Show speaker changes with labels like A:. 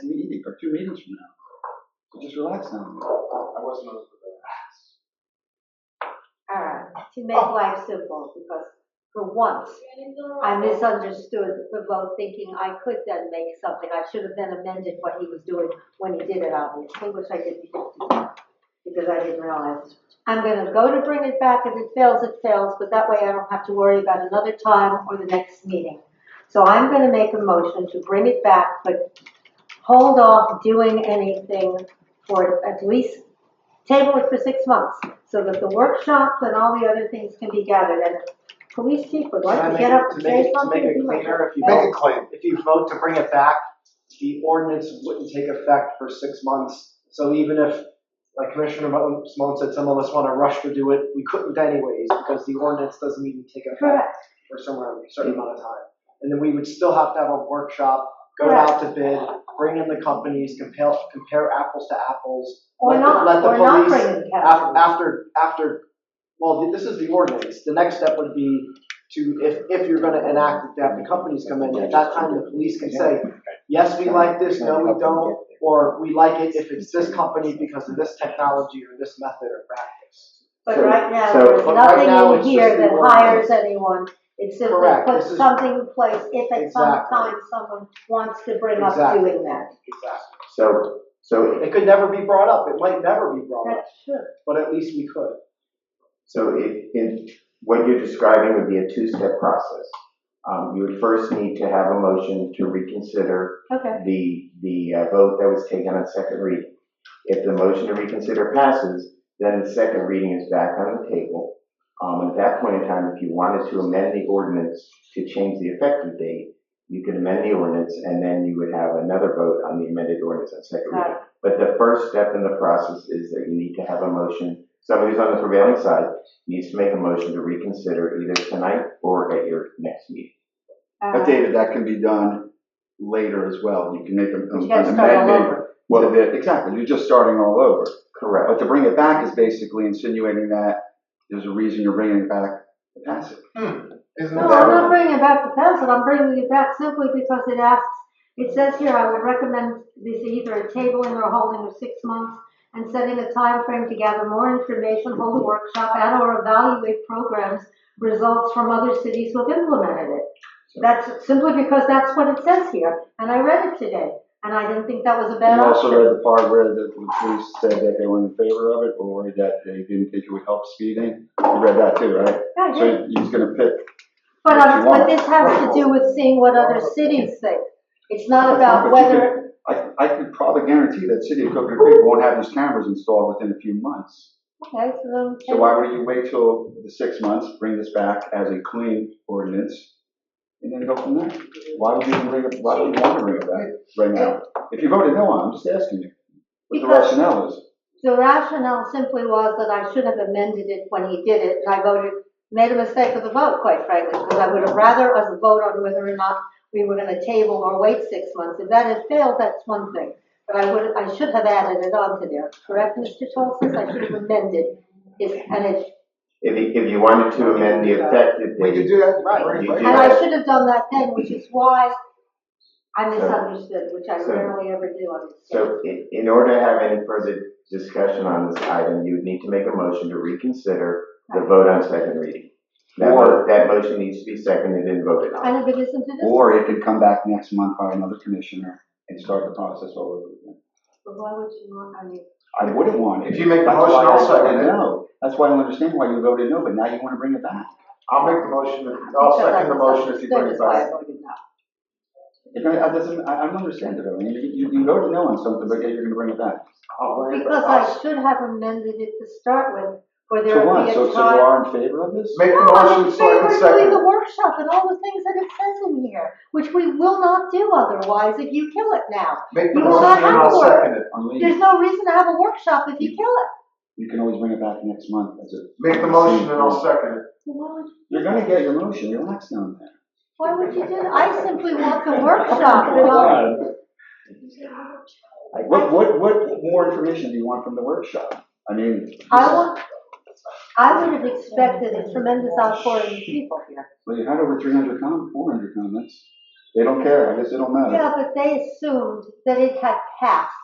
A: meet, or two meetings from now. So just relax now.
B: I wasn't on for that.
C: All right, to make life simple, because for once, I misunderstood the vote, thinking I could then make something. I should have then amended what he was doing when he did it, obviously, which I didn't do, because I didn't realize. I'm gonna go to bring it back, if it fails, it fails, but that way I don't have to worry about another time or the next meeting. So I'm gonna make a motion to bring it back, but hold off doing anything for at least table it for six months, so that the workshops and all the other things can be gathered, and police chief would
D: Can I
C: like to
D: make
C: get
D: it-
C: up and say
D: To
C: something.
D: make it, to make
C: he
D: it
C: might
D: cleaner, if you
B: Make it
D: vote,
B: clean.
D: if you vote to bring it back, the ordinance wouldn't take effect for six months. So even if, like Commissioner Mo- Simone said, some of us want to rush to do it, we couldn't anyways because the ordinance doesn't even take effect
C: Correct,
D: for somewhere, a certain amount of time. And then we would still have to have a workshop, go out to bid, bring in the companies, compare, compare apples to apples.
C: or
D: let the-
C: not,
D: let the
C: or not
D: police-
C: bringing
D: Af-
C: capital.
D: After, after, well, this is the ordinance, the next step would be to, if, if you're gonna enact it, to have the companies come in, at that time, the police can say, yes, we like this, no, we don't, or we like it if it's this company because of this technology or this method or practice.
C: But
A: So-
C: right now,
A: so-
C: there's
D: But right now,
C: nothing in
D: it's
C: here
D: just
C: that
D: the
C: hires anyone. It simply
D: Correct,
C: puts
D: this is-
C: something in place if at some
D: Exactly.
C: time someone wants to bring up
D: Exactly.
C: doing that.
D: Exactly.
A: So, so,
D: It could never be brought up, it might never be brought up,
C: That's true.
D: but at least we could.
A: so if, if what you're describing would be a two-step process. Um, you would first need to have a motion to reconsider
C: Okay,
A: the, the uh, vote that was taken on second reading. If the motion to reconsider passes, then the second reading is back on the table. Um, at that point in time, if you wanted to amend the ordinance to change the effective date, you could amend the ordinance and then you would have another vote on the amended ordinance on second
C: Got
A: reading. But the first step in the process is that you need to have a motion, somebody who's on the prevailing side needs to make a motion to reconsider either tonight or at your next meeting.
C: all
E: But
C: right.
E: David, that can be done later as well. You can make a-
C: You
E: an
C: gotta start all
E: amendment.
C: over.
E: Well, the- exactly, you're just starting all over.
A: Correct.
E: But to bring it back is basically insinuating that there's a reason you're bringing it back to pass it.
B: Isn't
C: No, I'm not bringing back the pencil, I'm bringing it back simply because it asks, it says here, I would recommend this either a tabling or holding of six months and setting a time frame to gather more information, hold a workshop, and or evaluate programs, results from other cities who've implemented it. That's simply because that's what it says here, and I read it today, and I didn't think that was a bad
E: You also
C: option.
E: read the part where the the police said that they were in favor of it or that they didn't think it would help speeding. You read that too, right?
C: Yeah, I did.
E: So he's gonna pick.
C: But,
E: what
C: um,
E: you
C: but
E: want.
C: this has to do with seeing what other cities think. It's not about
E: But you
C: whether
E: could- I, I could probably guarantee that city of Coconut Creek won't have these cameras installed within a few months.
C: Okay,
E: So
C: so then,
E: why would you wait till the six months, bring this back as a clean ordinance, and then go from there? Why would you even bring it, why would you want to bring it back right now? If you voted no on, it, I'm just asking you, what the
C: Because-
E: rationale is.
C: the rationale simply was that I should have amended it when he did it, and I voted, made a mistake with the vote, quite frankly, because I would have rather us vote on whether or not we were gonna table or wait six months. If that had failed, that's one thing, but I would, I should have added it on to there, correct, Mr. Tolson? I should have amended his, and it,
A: If you, if you wanted to amend the effective
B: We
A: date,
B: could do that.
D: Right.
B: Bring it
A: You
B: back.
A: do
C: and I should have done that then, which is why I misunderstood, which I
A: So-
C: rarely ever do understand.
A: so in, in order to have any further discussion on this item, you would need to make a motion to reconsider the vote on second reading. That, mo- that motion needs to be seconded and voted on.
C: And if it isn't to this,
E: Or it could come back next month by another commissioner and start the process all over again.
C: but why would you want, I mean,
E: I wouldn't want it.
B: If you make the
E: That's why
B: motion,
E: I
B: I'll second
E: voted
B: it.
E: no. That's why I don't understand why you voted no, but now you want to bring it back.
B: I'll make the motion, I'll
C: because I
B: second the motion if you
C: misunderstood,
B: bring it
C: is why
B: back.
C: I voted no.
E: It don't- it doesn't, I I don't understand it, I mean, you, you voted no on something, but yet you're going to bring it back.
B: I'll bring it
C: Because
B: back. I'll
C: I should have amended it to start with, for there
E: So
C: would
E: what,
C: be a
E: so, so you
C: time.
E: are in favor of this?
B: Make the
C: No, I'm in
B: motion, so I
C: favor
B: can
C: of
B: second.
C: doing
B: it.
C: the workshop and all the things that it says in here, which we will not do otherwise if you kill it now.
B: Make the
C: You will not
B: motion and
C: have
B: I'll
C: to work.
B: second it.
E: I'm leaving.
C: There's no reason to have a workshop if you kill it.
E: You can always bring it back next month as a.
B: Make the motion and I'll second it.
C: So Why would,
E: You're gonna get your motion, relax down there.
C: why would you do that? I simply want the workshop, you know?
E: What, what, what more information do you want from the workshop? I mean,
C: I want, I would have expected a tremendous outpouring of people here.
E: well, you had over three hundred com, four hundred comments. They don't care, I guess it don't matter.
C: Yeah, but they assumed that it had passed.